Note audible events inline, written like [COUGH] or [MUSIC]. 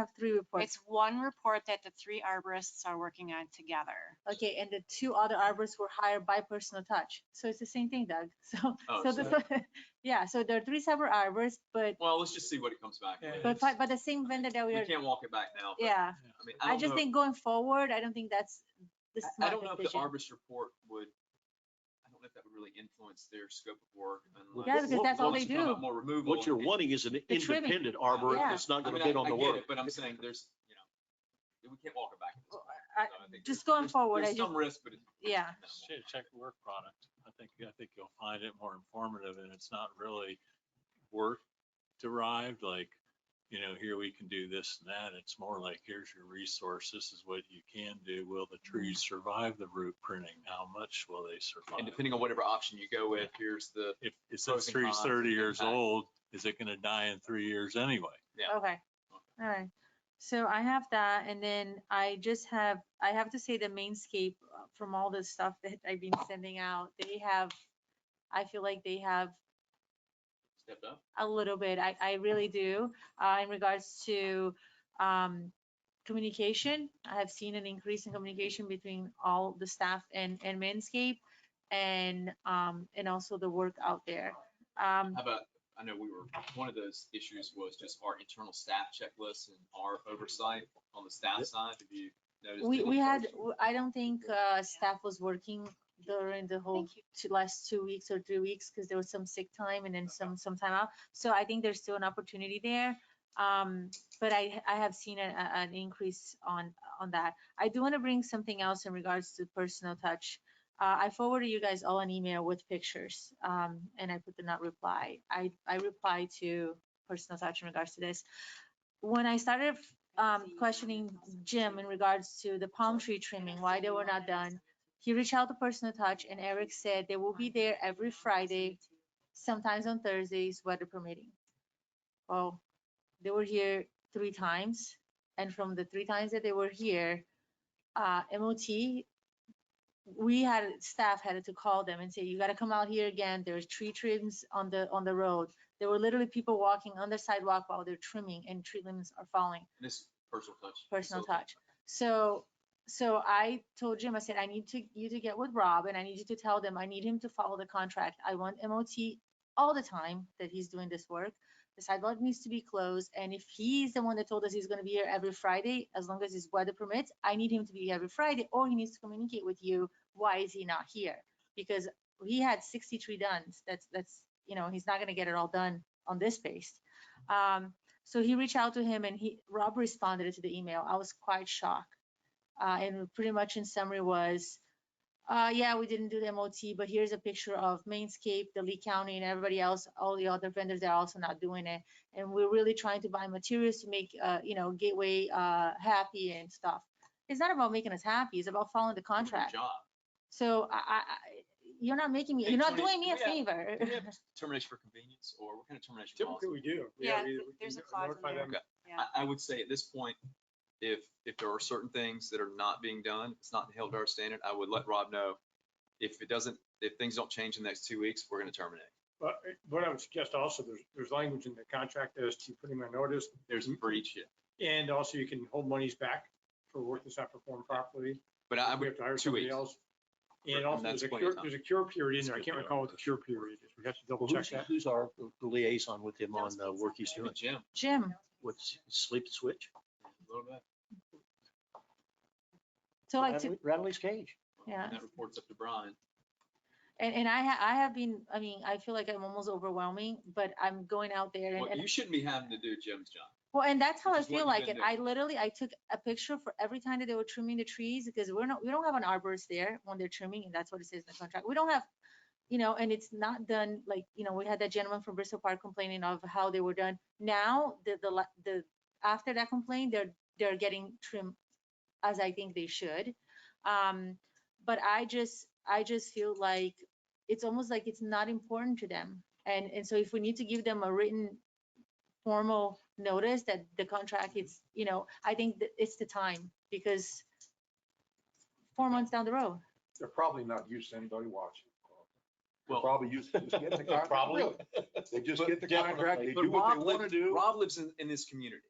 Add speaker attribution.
Speaker 1: have three reports.
Speaker 2: It's one report that the three arborists are working on together.
Speaker 1: Okay, and the two other arborists were hired by personal touch. So it's the same thing, Doug. [LAUGHS] So,
Speaker 3: Oh,
Speaker 1: so
Speaker 3: so-
Speaker 1: the, [LAUGHS] yeah, so there are three separate arborists, but,
Speaker 3: Well, let's just see what it comes back
Speaker 4: Yeah,
Speaker 3: with.
Speaker 1: but, by- by the same vendor that we
Speaker 3: We
Speaker 1: are,
Speaker 3: can't walk it back now. but,
Speaker 1: yeah.
Speaker 3: I mean,
Speaker 1: I
Speaker 3: don't
Speaker 1: just
Speaker 3: know-
Speaker 1: think going forward, I don't think that's the
Speaker 3: I- I
Speaker 1: smart
Speaker 3: don't know if the
Speaker 1: decision.
Speaker 3: arborist report would, I don't know if that would really influence their scope of work unless.
Speaker 1: Yeah, because
Speaker 5: What-
Speaker 1: that's all
Speaker 3: unless
Speaker 1: they
Speaker 3: you come
Speaker 1: do.
Speaker 3: up More removal.
Speaker 5: What you're
Speaker 3: it-
Speaker 5: wanting is an
Speaker 1: trimming.
Speaker 5: independent
Speaker 3: Yeah.
Speaker 5: arborist that's not
Speaker 3: I
Speaker 5: gonna
Speaker 3: mean,
Speaker 5: bid
Speaker 3: I-
Speaker 5: on
Speaker 3: I
Speaker 5: the
Speaker 3: get
Speaker 5: work.
Speaker 3: it, But I'm saying there's, you know, we can't walk it back. at this point.
Speaker 1: Oh, I-
Speaker 3: So I think
Speaker 1: just
Speaker 3: there's-
Speaker 1: going
Speaker 3: there's-
Speaker 1: forward, I
Speaker 3: There's
Speaker 1: just-
Speaker 3: some risk, but. it's-
Speaker 1: Yeah.
Speaker 3: it's minimal.
Speaker 4: Shit, Check the work product. I think, I think you'll find it more informative and it's not really work derived, like, you know, here we can do this and that. It's more like, here's your resource. This is what you can do. Will the trees survive the root pruning? How much will they
Speaker 3: And
Speaker 4: survive?
Speaker 3: depending on whatever option you go with, here's the,
Speaker 4: If, if
Speaker 3: pros
Speaker 4: this
Speaker 3: and
Speaker 4: tree's
Speaker 3: cons
Speaker 4: thirty
Speaker 3: and
Speaker 4: years
Speaker 3: impact.
Speaker 4: old, is it gonna die in three years anyway?
Speaker 3: Yeah.
Speaker 1: Okay, all right. So I have that, and then I just have, I have to say the mainscape uh, from all the stuff that I've been sending out, they have, I feel like they have
Speaker 3: stepped up.
Speaker 1: a little bit. I, I really do. Uh, in regards to, um, communication, I have seen an increase in communication between all the staff and, and Manscaped and, um, and also the work out there. Um,
Speaker 3: How about, I know we were, one of those issues was just our internal staff checklist and our oversight on the staff side. Have you noticed?
Speaker 1: we,
Speaker 3: any
Speaker 1: we had,
Speaker 3: issues?
Speaker 1: w- I don't think, uh, staff was working during the whole
Speaker 2: Thank you.
Speaker 1: two, last two weeks or three weeks, because there was some sick time and then some, some time out. So I think there's still an opportunity there. Um, but I, I have seen a, a- an increase on, on that. I do want to bring something else in regards to personal touch. Uh, I forwarded you guys all an email with pictures, um, and I put the not reply. I, I reply to personal touch in regards to this. When I started, um, questioning Jim in regards to the palm tree trimming, why they were not done, he reached out to personal touch and Eric said they will be there every Friday, sometimes on Thursdays, weather permitting. Well, they were here three times, and from the three times that they were here, uh, MOT, we had, staff had to call them and say, you gotta come out here again, there's tree trims on the, on the road. There were literally people walking on the sidewalk while they're trimming and tree limbs are falling
Speaker 3: This personal touch.
Speaker 1: personal
Speaker 3: facility.
Speaker 1: touch. So, so I told Jim, I said, I need to, you to get with Rob and I need you to tell them, I need him to follow the contract. I want MOT all the time that he's doing this work. The sidewalk needs to be closed. And if he's the one that told us he's gonna be here every Friday, as long as his weather permits, I need him to be every Friday or he needs to communicate with you, why is he not here? Because he had sixty-three done. That's, that's, you know, he's not gonna get it all done on this pace. Um, so he reached out to him and he, Rob responded to the email. I was quite shocked. Uh, and pretty much in summary was, uh, yeah, we didn't do the MOT, but here's a picture of Mainscape, the Lee County and everybody else, all the other vendors, they're also not doing it. And we're really trying to buy materials to make, uh, you know, Gateway, uh, happy and stuff. It's not about making us happy. It's about following the
Speaker 3: Doing a good
Speaker 1: contract.
Speaker 3: Job.
Speaker 1: So I, I, I- you're not making me,
Speaker 3: Hey,
Speaker 1: you're not
Speaker 3: Tony,
Speaker 1: doing me a
Speaker 3: we have-
Speaker 1: favor.
Speaker 3: Do we have termination for convenience or what kind of termination policy?
Speaker 6: Typically, we do. We have
Speaker 2: Yeah,
Speaker 6: either-
Speaker 2: th-
Speaker 6: we
Speaker 2: there's
Speaker 6: can
Speaker 2: a clause in
Speaker 6: notify
Speaker 2: there.
Speaker 6: them.
Speaker 2: Yeah.
Speaker 3: I, I would say at this point, if, if there are certain things that are not being done, it's not held to our standard, I would let Rob know. If it doesn't, if things don't change in the next two weeks, we're gonna terminate.
Speaker 6: But uh, what I would suggest also, there's, there's language in the contract as to putting my notice,
Speaker 3: There's a breach, yeah.
Speaker 6: and also you can hold monies back for work that's not performed properly.
Speaker 3: but I
Speaker 6: if we
Speaker 3: would,
Speaker 6: have to hire
Speaker 3: Uh, two
Speaker 6: somebody
Speaker 3: weeks.
Speaker 6: else.
Speaker 3: And
Speaker 6: And also,
Speaker 3: that's
Speaker 6: there's a
Speaker 3: plenty of
Speaker 6: cure,
Speaker 3: time.
Speaker 6: there's a cure period in there. I
Speaker 4: Skip
Speaker 6: can't
Speaker 4: it
Speaker 6: recall
Speaker 4: over.
Speaker 6: what the cure period is. We have to double
Speaker 5: Well,
Speaker 6: check
Speaker 5: Who's, who's
Speaker 6: that.
Speaker 5: our liaison with him
Speaker 2: That
Speaker 5: on
Speaker 2: was
Speaker 5: the work he's
Speaker 2: pizza.
Speaker 5: doing?
Speaker 1: [LAUGHS]
Speaker 3: Jim,
Speaker 2: Hmm.
Speaker 1: Jim,
Speaker 5: What's sleep switch?
Speaker 3: a little bit.
Speaker 1: so like to,
Speaker 5: Radley- Radley's cage.
Speaker 1: Yeah.
Speaker 3: And That reports up to Brian.
Speaker 1: And, and I ha- I have been, I mean, I feel like I'm almost overwhelming, but I'm going out there and,
Speaker 3: What
Speaker 1: and,
Speaker 3: you shouldn't be having to do Jim's job.
Speaker 1: well, and that's how
Speaker 3: which
Speaker 1: I
Speaker 3: is what
Speaker 1: feel
Speaker 3: you've
Speaker 1: like it.
Speaker 3: been
Speaker 1: I literally, I took a picture for every time that they were trimming the trees because we're not, we don't have an arborist there when they're trimming and that's what it says in the contract. We don't have, you know, and it's not done, like, you know, we had that gentleman from Bristol Park complaining of how they were done. Now, the, the, la- the, after that complaint, they're, they're getting trimmed as I think they should. Um, but I just, I just feel like it's almost like it's not important to them. And, and so if we need to give them a written formal notice that the contract is, you know, I think that it's the time because four months down the road.
Speaker 7: They're probably not used to anybody watching. They're
Speaker 3: Well-
Speaker 7: Probably used to just
Speaker 6: [LAUGHS]
Speaker 7: getting the contract.
Speaker 5: Probably.
Speaker 7: Really. They just
Speaker 5: But
Speaker 7: get the
Speaker 5: definitely.
Speaker 7: contract, they
Speaker 3: But
Speaker 7: do what
Speaker 3: Rob
Speaker 7: they want to do.
Speaker 3: Rob lives in, in this community.